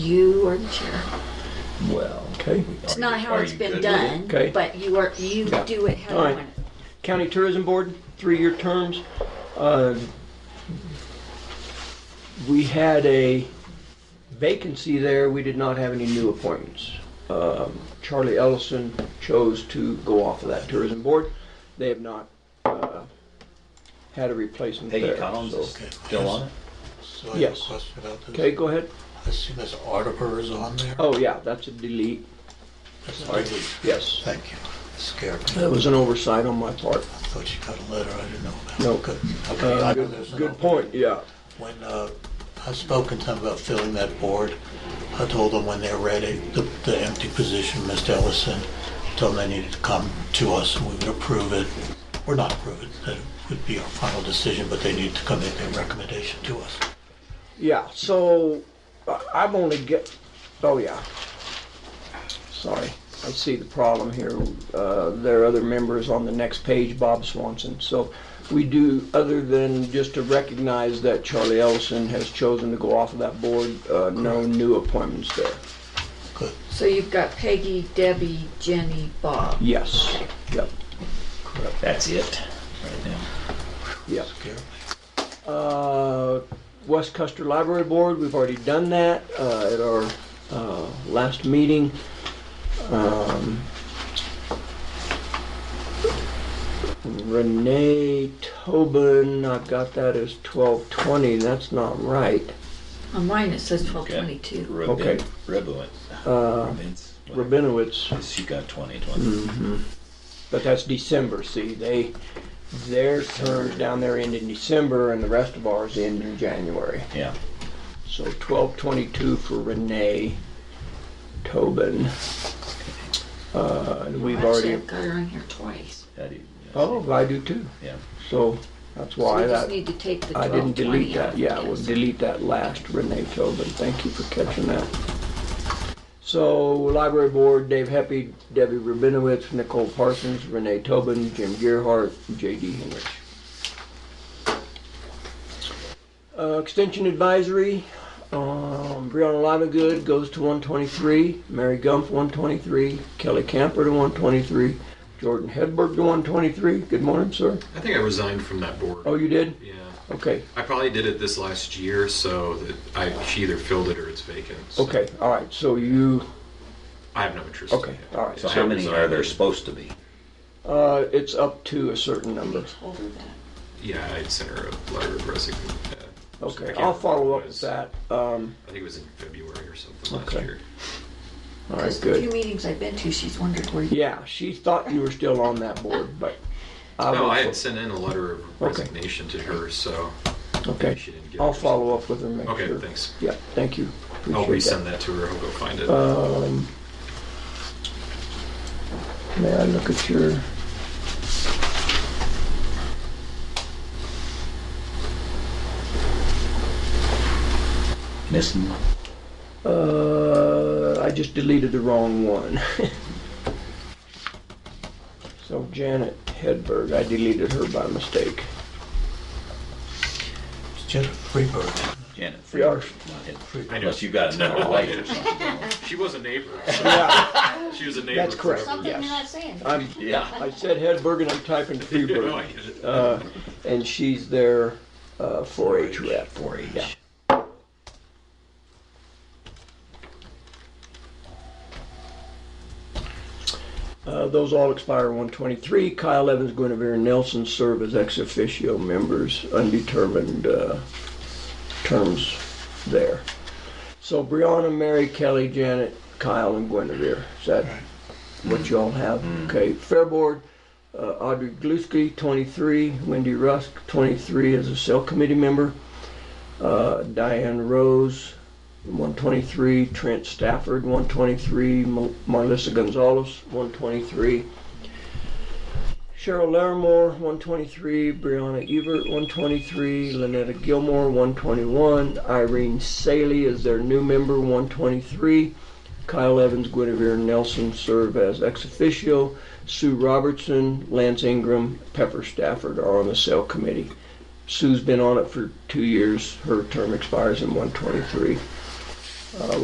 You are the chair. Well, Okay. It's Are not you- how are it's you been good with done, Okay. but you are, you Yeah. do it how All you right. want it. County Tourism Board, three-year terms. Uh, We had a vacancy there, we did not have any new appointments. Um, Charlie Ellison chose to go off of that tourism board. They have not uh, had a replacement there. Peggy Collins is so- still on it? So I have a Yes. question about this. Okay, go ahead. I see Ms. Artiper is on there. Oh, yeah, that's a delete, That's all right. really- yes. Thank you. It Scared me. That was an oversight on my part. I thought you got a letter I didn't know about. No. Good. Okay, Uh, I know there's Good an good opening. point, yeah. When uh, I spoke in time about filling that board, I told them when they're ready, the, the empty position, Mr. Ellison, told them they needed to come to us and we would approve it, or not approve it, that would be our final decision, but they need to come make their recommendation to us. Yeah, so uh, I've only get, oh yeah. Sorry, I see the problem here. Uh, There are other members on the next page, Bob Swanson. So we do, other than just to recognize that Charlie Ellison has chosen to go off of that board, uh, no new appointments there. Good, So you've got Peggy, Debbie, Jenny, Bob. Yes, yep, That's it, right now. yep. scared me. Uh, West Custer Library Board, we've already done that uh, at our uh, last meeting. Um, Renee Tobin, I've got that as 1220, that's not right. On mine, it says twelve Okay. twenty-two. Rabin, Okay. Rabin. Uh, Rabin's- whatever. Rabinowitz, She got 20, 20. mhm. but that's December, see, they, their terms down there end in December and the rest of ours end in January. Yeah. So twelve twenty-two for Renee Tobin. Uh, and we've Actually, already, I've got her on here twice. How do you- oh, I do too. Yeah. So that's So why we just that, need to take the I twelve didn't twenty delete that. out. Yeah, we'll delete that last Renee Tobin. Thank you for catching that. So library board, Dave Heppy, Debbie Rubinowitz, Nicole Parsons, Renee Tobin, Jim Gearhart, J.D. Henrich. Uh, Extension Advisory, um, Brianna Livegood goes to 123, Mary Gump 123, Kelly Camper to 123, Jordan Hedberg to 123. Good morning, sir. I think I resigned from that board. Oh, you did? Yeah. Okay, I probably did it this last year, so that I she either filled it or it's vacant. so okay, all right, so you, I have no interest. okay, In it. all right. So So how many are there supposed to be? Uh, it's up to a certain number. Told her that. Yeah, I sent her a letter of resignation. Uh, Okay, I'll follow up with that. Um, I think it was in February or something last Okay. year. all right, Because the few good. meetings I've been to, she's wondered where you. Yeah, she thought you were still on that board, but I No, I had was, sent in a letter of Okay. resignation to her, so okay, she didn't get it. I'll follow up with her, make Okay, sure. thanks. Yeah, thank you. I'll Appreciate that. resend that to her. I'll go find it. Um, may I look at your? Missing? Uh, I just deleted the wrong one. so Janet Hedberg, I deleted her by mistake. It's Jennifer Freeburg. Janet. We are- Not him. I know. Unless you've got another light or something. she was a neighbor. so- Yeah, she was a neighbor. that's correct. forever. Yes. Oh, saying. I'm, Yeah. I said Hedberg and I'm typing No, I Freeburg. get it. Uh, and she's their uh, 4-H rep. Four Yeah. each. Uh, those all expire 123. Kyle Evans, Guinevere Nelson serve as ex officio members, undetermined uh, terms there. So Brianna, Mary, Kelly, Janet, Kyle, and Guinevere. Is that what you all have? Okay. Fair Board, uh, Audrey Glusky, 23. Wendy Rusk, 23 as a cell committee member. Uh, Diane Rose, 123, Trent Stafford, 123, Mo- Marlissa Gonzalez, 123, Cheryl Larimore, 123, Brianna Evert, 123, Lynetta Gilmore, 121, Irene Saley is their new member, 123, Kyle Evans, Guinevere Nelson serve as ex officio, Sue Robertson, Lance Ingram, Pepper Stafford are on the cell committee. Sue's been on it for two years. Her term expires in 123. Uh,